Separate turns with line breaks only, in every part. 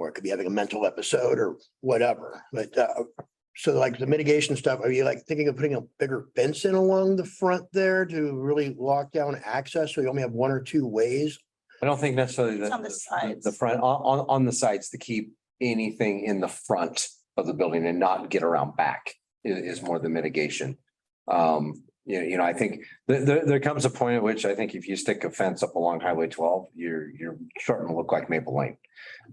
it could be having a mental episode or whatever, but, uh, so like the mitigation stuff, are you like thinking of putting a bigger fence in along the front there to really lock down access? So you only have one or two ways?
I don't think necessarily the,
It's on the
the- the
sides.
front, on, on, on the sides to keep anything in the front of the building and not get around back i- is, more the mitigation. Um, you know, you know, I think there, there, there comes a point at which I think if you stick a fence up along Highway twelve, you're, you're starting to look like Maple Lane.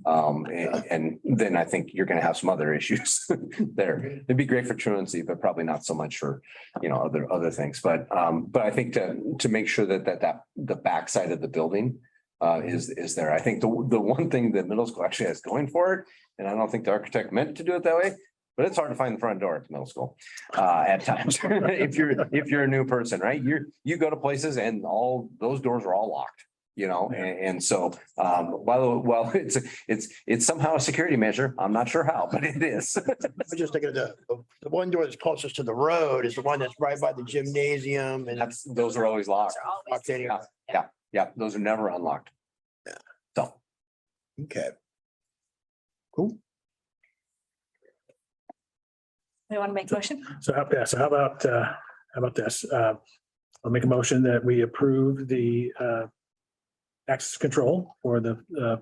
Um, and, and then I think you're gonna have some other issues there. It'd be great for truancy, but probably not so much for, you know, other, other things. But, um, but I think to, to make sure that, that, that the backside of the building uh, is, is there. I think the, the one thing that middle school actually has going for it, and I don't think the architect meant to do it that way, but it's hard to find the front door at the middle school, uh, at times. If you're, if you're a new person, right? You're, you go to places and all, those doors are all locked, you know, and, and so, um, while, while it's, it's, it's somehow a security measure, I'm not sure how, but it is.
I was just thinking of the, the one door that's closest to the road is the one that's right by the gymnasium and
That's, those are always locked.
They're always-
locked in.
Yeah. Yeah, those are never unlocked.
Yeah.
So.
Okay. Cool.
We want to make a motion?
So how, yeah, so how about, uh, how about this? Uh, I'll make a motion that we approve the, uh, access control for the, uh,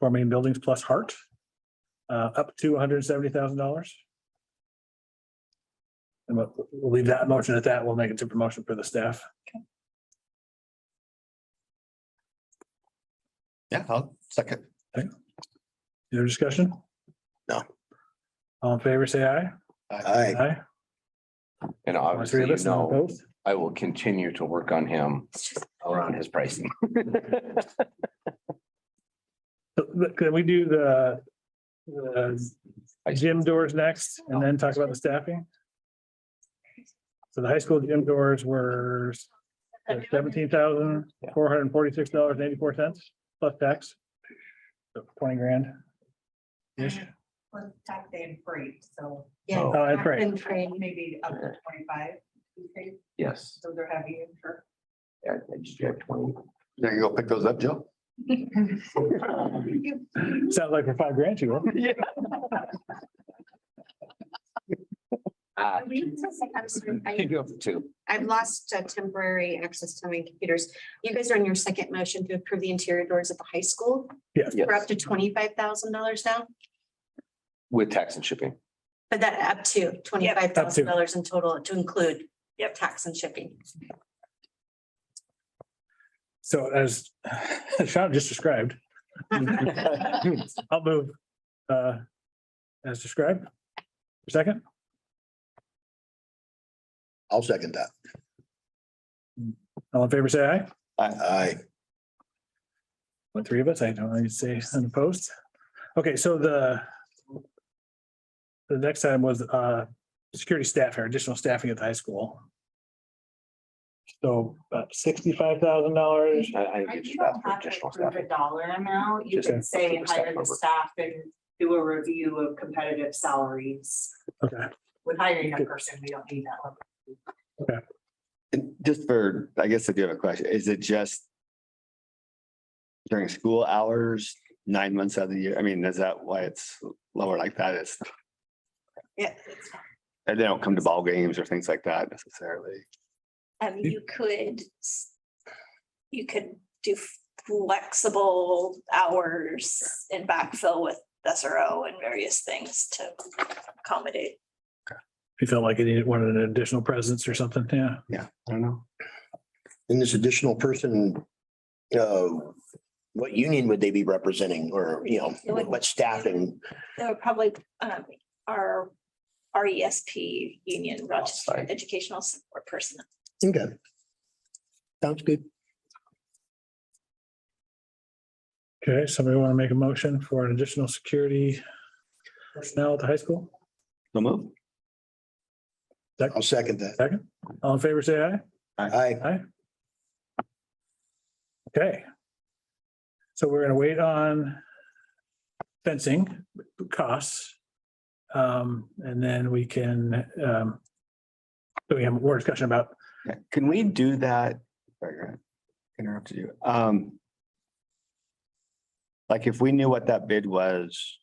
four main buildings plus heart, uh, up to one hundred and seventy thousand dollars. And we'll, we'll leave that motion at that. We'll make it to promotion for the staff.
Yeah, I'll second.
Your discussion?
No.
All in favor, say aye.
Aye.
Aye.
And
All
obviously,
three of
you
us, none
know,
opposed?
I will continue to work on him
It's just-
around his pricing.
So, look, Can we do the, the gym doors next and then talk about the staffing? So the high school gym doors were seventeen thousand, four hundred and forty-six dollars and eighty-four cents plus tax. So Twenty grand. Ish.
Well, tax day and freight, so.
Yeah.
Oh.
Oh, that's right.
And freight, maybe up to twenty-five, you think,
Yes.
so they're heavy and sure.
I I just got twenty.
There you go, pick those up, Joe.
Sounds like for five grand you were.
Ah,
We need to set up some-
you
I-
go for two.
I've lost uh, temporary access to my computers. You guys are on your second motion to approve the interior doors at the high school. We're up
Yes,
to twenty-five thousand dollars now,
with tax and shipping.
but that up to twenty-five thousand dollars in total to include
Yep.
tax and shipping.
So as Sean just described, I'll move, uh, as described. Second,
I'll second that.
all in favor, say aye.
Aye.
What, three of us? I don't know, you say unopposed. Okay, so the the next item was uh, security staff or additional staffing at the high school. So about sixty-five thousand dollars.
I, I
You
get you that
don't
for
have to
additional
approve a
staffing.
dollar amount, you
Just
can say
approve the
hire the
staff
staff and do a review of competitive salaries.
Okay,
With hiring a person, we don't need that level.
And just for, I guess I do have a question, is it just during school hours, nine months out of the year? I mean, is that why it's lower like that? It's,
Yeah.
and they don't come to ball games or things like that necessarily.
Um, you could. s- You could do flexible hours and backfill with SRO and various things to accommodate.
if you felt like you needed one an additional presence or something, yeah.
I don't know.
And this additional person, uh, what union would they be representing or, you know,
It would-
what staffing?
They were probably um our R E S P Union Rochester
Outside.
Educational Support Person.
Okay. Sounds good.
Okay, somebody want to make a motion for an additional security personnel at the high school?
So move.
I'll second that.
Second, all in favor, say aye.
Aye.
Aye. Okay. So we're gonna wait on fencing costs. Um, and then we can, um, so we have more discussion about,
Yeah, Can we do that? Sorry, Grant, Interrupted you. Um. Like if we knew what that bid was